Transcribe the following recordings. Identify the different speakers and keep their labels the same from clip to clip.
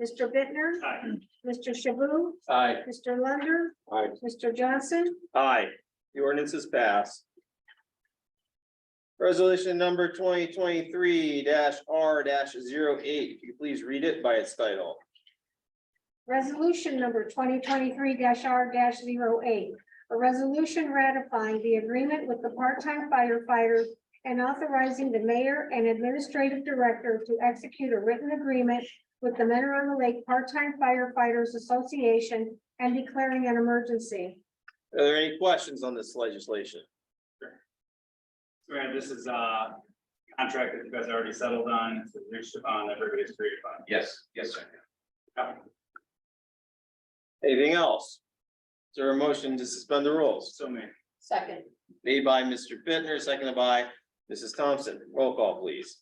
Speaker 1: Mr. Bittner,
Speaker 2: Aye.
Speaker 1: Mr. Shaboo,
Speaker 2: Aye.
Speaker 1: Mr. Lunder,
Speaker 2: Aye.
Speaker 1: Mr. Johnson,
Speaker 2: Aye. The ordinance is passed. Resolution number twenty twenty-three R 8 if you could please read it by its title.
Speaker 1: Resolution number twenty twenty-three R 8 A resolution ratifying the agreement with the part-time firefighters and authorizing the mayor and administrative director to execute a written agreement with the Men on the Lake Part-Time Firefighters Association and declaring an emergency.
Speaker 2: Are there any questions on this legislation?
Speaker 3: Grant, this is uh, a contract that you guys already settled on, it's been reached upon, everybody's agreed upon.
Speaker 4: Yes, yes, sir.
Speaker 2: Anything else? Is there a motion to suspend the rules?
Speaker 3: So many.
Speaker 5: Second,
Speaker 2: Made by Mr. Bittner, seconded by Mrs. Thompson. Roll call, please.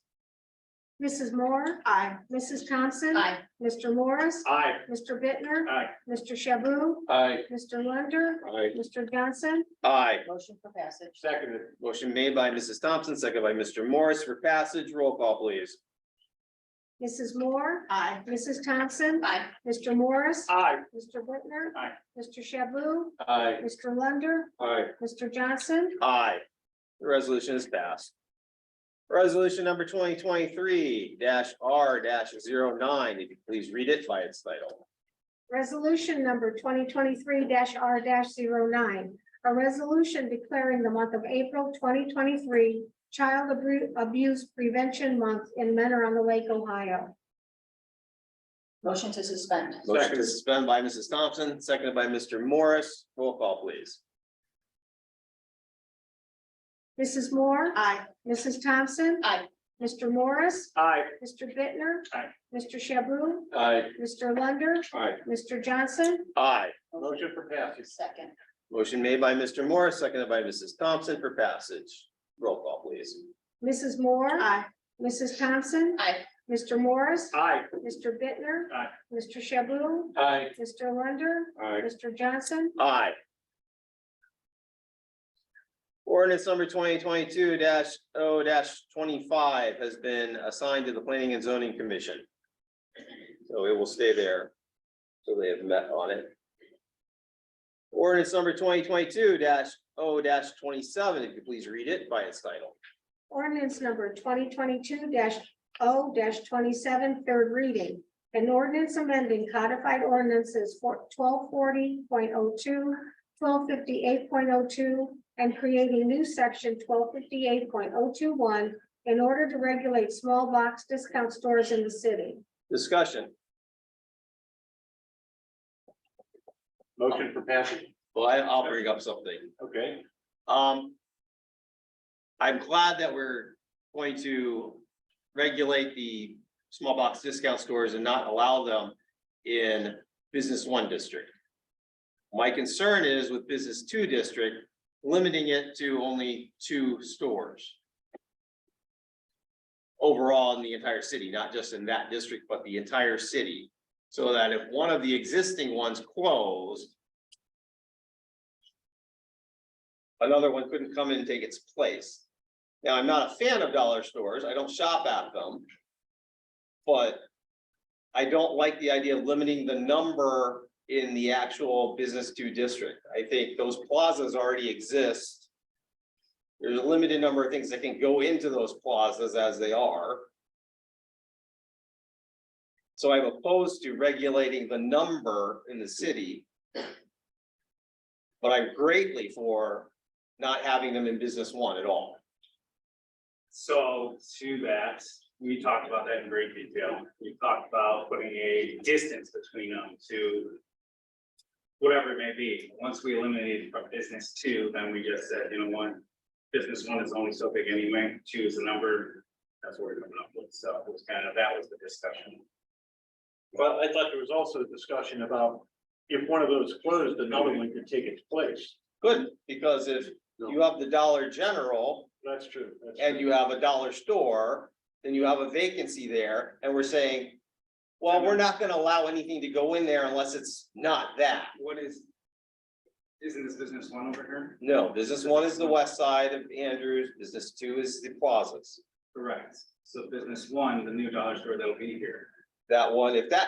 Speaker 1: Mrs. Moore,
Speaker 5: aye.
Speaker 1: Mrs. Thompson.
Speaker 5: Aye.
Speaker 1: Mr. Morris,
Speaker 3: Aye.
Speaker 1: Mr. Bittner,
Speaker 3: Aye.
Speaker 1: Mr. Shaboo,
Speaker 4: Aye.
Speaker 1: Mr. Lunder,
Speaker 2: Aye.
Speaker 1: Mr. Johnson,
Speaker 2: Aye.
Speaker 5: Motion for passage.
Speaker 3: Seconded.
Speaker 2: Motion made by Mrs. Thompson, seconded by Mr. Morris for passage. Roll call, please.
Speaker 1: Mrs. Moore,
Speaker 5: Aye.
Speaker 1: Mrs. Thompson,
Speaker 5: Aye.
Speaker 1: Mr. Morris,
Speaker 3: Aye.
Speaker 1: Mr. Whitner.
Speaker 3: Aye.
Speaker 1: Mr. Shaboo,
Speaker 2: Aye.
Speaker 1: Mr. Lunder,
Speaker 2: Aye.
Speaker 1: Mr. Johnson,
Speaker 2: Aye. The resolution is passed. Resolution number twenty twenty-three R 9 if you please read it by its title.
Speaker 1: resolution number twenty twenty-three R 9 A resolution declaring the month of April twenty twenty-three Child Abru- Abuse Prevention Month in Mentor on the Lake, Ohio.
Speaker 5: Motion to suspend.
Speaker 2: Motion to suspend by Mrs. Thompson, seconded by Mr. Morris. Roll call, please.
Speaker 1: Mrs. Moore,
Speaker 5: Aye.
Speaker 1: Mrs. Thompson.
Speaker 5: Aye.
Speaker 1: Mr. Morris,
Speaker 3: Aye.
Speaker 1: Mr. Bittner,
Speaker 3: Aye.
Speaker 1: Mr. Shaboo,
Speaker 2: Aye.
Speaker 1: Mr. Lunder,
Speaker 2: Aye.
Speaker 1: Mr. Johnson,
Speaker 2: Aye.
Speaker 3: Motion for passage.
Speaker 5: Second,
Speaker 2: Motion made by Mr. Morris, seconded by Mrs. Thompson for passage. Roll call, please.
Speaker 1: Mrs. Moore.
Speaker 5: aye.
Speaker 1: Mrs. Thompson.
Speaker 5: Aye.
Speaker 1: Mr. Morris.
Speaker 3: Aye.
Speaker 1: Mr. Bittner.
Speaker 3: Aye.
Speaker 1: Mr. Shaboo.
Speaker 2: Aye.
Speaker 1: Mr. Lunder.
Speaker 2: Aye.
Speaker 1: Mr. Johnson.
Speaker 2: Aye. Ordinance number twenty twenty-two 0 twenty-five has been assigned to the Planning and Zoning Commission. So it will stay there. So they have met on it. Ordinance number twenty twenty-two 0 twenty-seven, if you please read it by its title.
Speaker 1: Ordinance number twenty twenty-two 0 twenty-seven, third reading. An ordinance amending codified ordinances for 1240.02, 1258.02, and creating new section twelve fifty-eight point oh two one in order to regulate small box discount stores in the city.
Speaker 2: Discussion.
Speaker 3: Motion for passage.
Speaker 2: Well, I- I'll bring up something.
Speaker 3: Okay.
Speaker 2: Um. I'm glad that we're going to regulate the small box discount stores and not allow them in business one district. My concern is with business two district, limiting it to only two stores. Overall in the entire city, not just in that district, but the entire city, so that if one of the existing ones closed, another one couldn't come in and take its place. Now, I'm not a fan of dollar stores, I don't shop at them. But I don't like the idea of limiting the number in the actual business to district. I think those plazas already exist. There's a limited number of things that can go into those plazas as they are. So I'm opposed to regulating the number in the city. But I'm greatly for not having them in business one at all.
Speaker 3: So to that, we talked about that in great detail. We talked about putting a distance between them to whatever it may be. Once we eliminated from business two, then we just said, you know, one, business one is only so big anyway, two is the number. That's what we're coming up with. So it was kind of, that was the discussion.
Speaker 6: Well, I thought there was also a discussion about if one of those closed, another one could take its place.
Speaker 2: Good, because if you have the Dollar General
Speaker 6: That's true. that's
Speaker 2: and
Speaker 6: true.
Speaker 2: you have a dollar store, then you have a vacancy there, and we're saying, well, we're not gonna allow anything to go in there unless it's not that.
Speaker 3: What is, isn't this business one over here?
Speaker 2: No, business one is the west side of Andrews, business two is the plazas.
Speaker 3: Correct. So business one, the new dollar store that'll be here.
Speaker 2: That one, if that